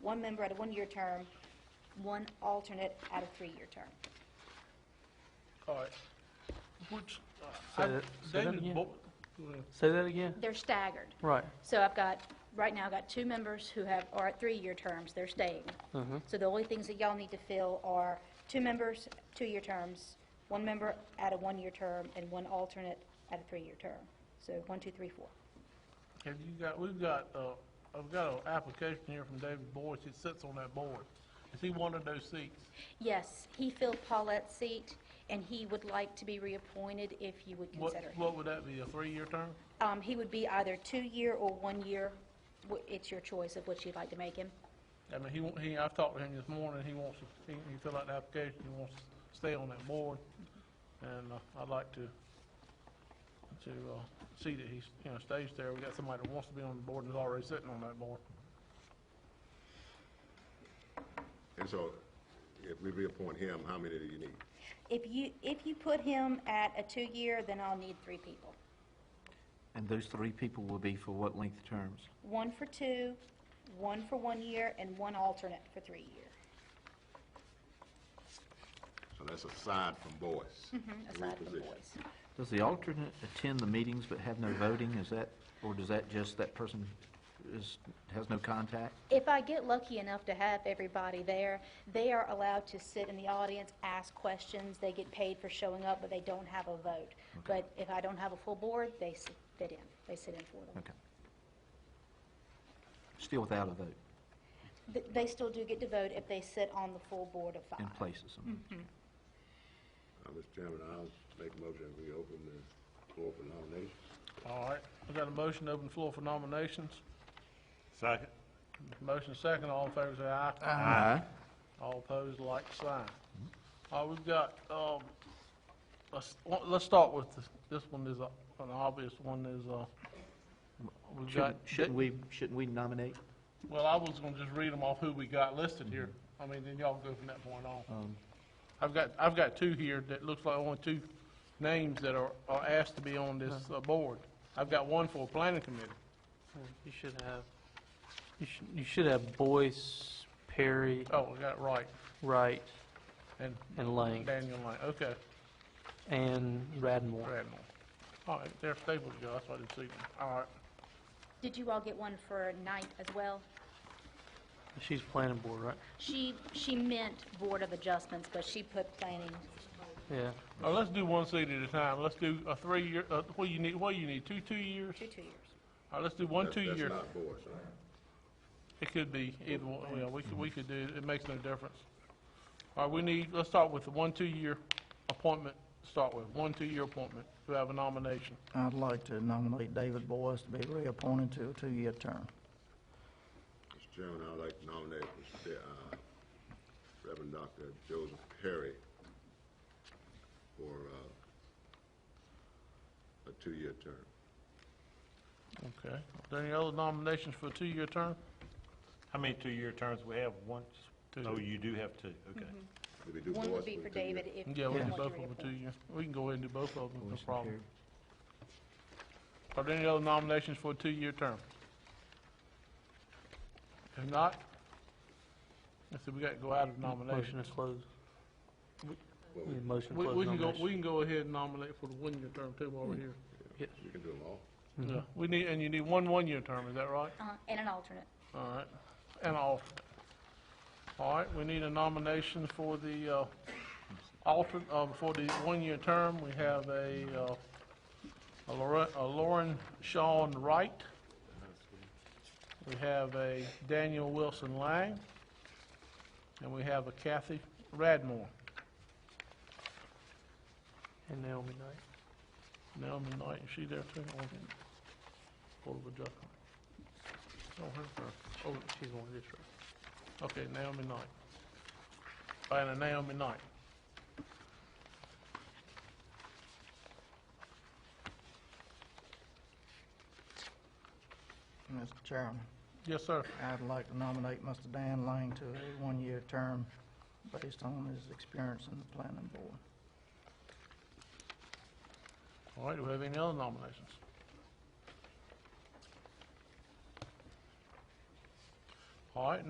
one member at a one-year term, one alternate at a three-year term. All right. Which, Say I, that- say that David again. Bo, go ahead. Say that again? They're staggered. Right. So I've got, right now, I've got two members who have, are at three-year terms, they're staying. So the only things that y'all need to fill are two members, two-year terms, one member at a one-year term, and one alternate at a three-year term. So one, two, three, four. have you got, we've got, uh, I've got an application here from David Boyce, he sits on that board. Is he one of those seats? Yes, he filled Paulette's seat, and he would like to be reappointed if you would What, consider him. what would that be, a three-year term? Um, He would be either two-year or one-year. Wh- It's your choice of which you'd like to make him. I mean, he, wa- he, I've talked to him this morning, he wants, to- he, he filled out the application, he wants to stay on that board, and uh, I'd like to, to, uh, see that he's, you know, stays there, we got somebody that wants to be on the board and is already sitting on that board. And so, if we reappoint him, how many do you need? If you, if you put him at a two-year, then I'll need three people. And those three people will be for what length terms? One for two, one for one year, and one alternate for three years. So that's aside from Boyce. Three Mm-hmm, aside from positions. boys. Does the alternate attend the meetings but have no voting? Is that, or does that just, that person is, has no contact? If I get lucky enough to have everybody there, they are allowed to sit in the audience, ask questions, they get paid for showing up, but they don't have a vote. But if I don't have a full board, they sit fit in, they sit in for them. Okay. Still without a vote Th- They still do get to vote if they sit on the full board of in five. places. Uh, Mr. Chairman, I'll make a motion that we open the floor for nominations. All right, we got a motion to open the floor for nominations. Second. Motion second, all in favor say aye. Aye. All opposed, like sign. All right, we've got, um, let's, well, let's start with, this This one is a- an obvious one, is, uh, we've got. Shouldn't- Shouldn't we, shouldn't we nominate? Well, I was gonna just read them off who we got listed here. I mean, then y'all go from that point on. I've got, I've got two here that looks like only two names that are, are asked to be on this uh, board. I've got one for a planning committee. You should have, you should, you should have Boyce, Perry, Oh, we got it right. Wright, And and Lang, Daniel Lane, okay, and Radmore. Radmore. All right, they're staples, Joe, that's why I didn't see them. All right, Did you all get one for ninth as well? She's planning board, right? She, she meant Board of Adjustments, but she put planning. Yeah. now let's do one seat at a time. Let's do a three-year, uh, what you need, what you need, two, two years? Two, two years. All right, let's do one, That's- two year. That's not Boyce, right? It could be either one, well, we could, we could do, it makes no difference. All right, we need, let's start with the one, two-year appointment, to start with, one, two-year appointment. Do we have a nomination? I'd like to nominate David Boyce to be reappointed to a two-year term. Mr. Chairman, I'd like to nominate Mr. uh, Reverend Dr. Joseph Perry for uh, a two-year term. Okay. Are there any other nominations for a two-year term? How many two-year terms we have? Once, Two. oh, you do have two, okay. Did we do One Boyce would be a for two-year? David if you Yeah, we want can to do both of them reappoint. for two years. We can go ahead and do both of them, no Voice and problem. Perry. Are there any other nominations for a two-year term? If not, I said we got to go out of Motion nominations. to close. Well, Yeah, Motion to We, close we can go, nominations. we can go ahead and nominate for the one-year term too while we're here. You can do them all. Mm-hmm. Yeah, we need, and you need one one-year term, is that right? Uh, And an alternate. All right, and an alternate. All right, we need a nomination for the, uh, alternate, uh, for the one-year term. We have a, uh, a Lauren, a Lauren Shawn Wright. We have a Daniel Wilson Lang. And we have a Kathy Radmore. And Naomi Knight. Naomi Knight, is she there too? Or- Board of Adjustment. Oh, her, her. Oh, She's on this right. Okay, Naomi Knight. And a Naomi Knight. Mr. Chairman, Yes, sir. I'd like to nominate Mr. Dan Lang to a one-year term based on his experience in the planning board. All right, do we have any other nominations? All right,